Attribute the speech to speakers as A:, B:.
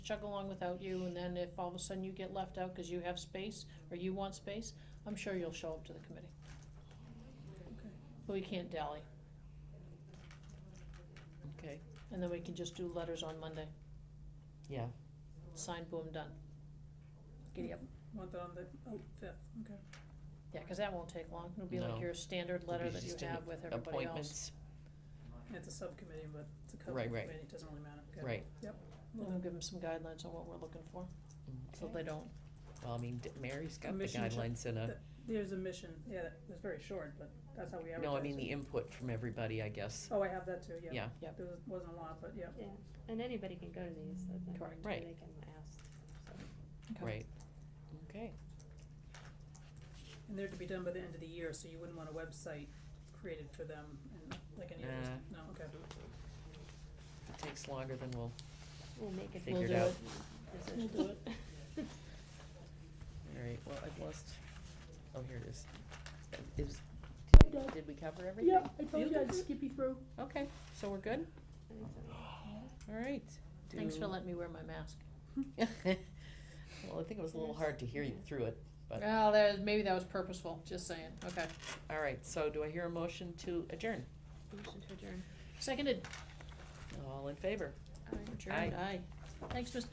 A: chug along without you, and then if all of a sudden you get left out because you have space, or you want space, I'm sure you'll show up to the committee. But we can't dally,
B: Okay,
A: and then we can just do letters on Monday,
B: yeah,
A: sign, boom, done. Giddy up.
C: Want that on the, oh, fifth, okay.
A: Yeah, because that won't take long, it'll be
B: No.
A: like your standard letter
B: It'll be
A: that you
B: just an
A: have with everybody else.
B: appointments,
C: It's a subcommittee, but it's a cover
B: Right, right.
C: committee, it doesn't really matter, okay.
B: right.
A: And we'll give them some guidelines on what we're looking for, so
B: Okay.
A: they don't,
B: Well, I mean, d- Mary's got the
C: Commission check-
B: guidelines and a,
C: that- There's a mission, yeah, that was very short, but that's how we advertised it.
B: no, I mean, the input from everybody, I guess,
C: Oh, I have that too, yeah.
B: yeah,
C: There was- wasn't a lot, but yeah.
D: Yeah, and anybody can go to these, that's not
A: Correct.
B: Right.
D: they can ask, so.
A: Okay.
B: right. Okay,
C: And they're to be done by the end of the year, so you wouldn't want a website created for them and like any others,
B: Nah.
C: no, okay.
B: if it takes longer than we'll,
D: We'll make it.
B: Figured
A: do out. it.
D: Decision.
A: We'll do
B: all right, well, I've lost, oh, here it is. Is, did- did we cover everything?
C: Yeah, I told you I'd skip you through.
B: Okay, so we're good,
D: I think so.
B: all right.
A: thanks for
B: Do-
A: letting me wear my mask.
B: Well, I think it was a little hard to hear you through it, but,
A: Well, that, maybe that was purposeful, just saying, okay.
B: all right, so do I hear a motion to adjourn?
D: Motion to adjourn.
A: Seconded,
B: All in favor?
A: adjourned, aye. Thanks, Mr.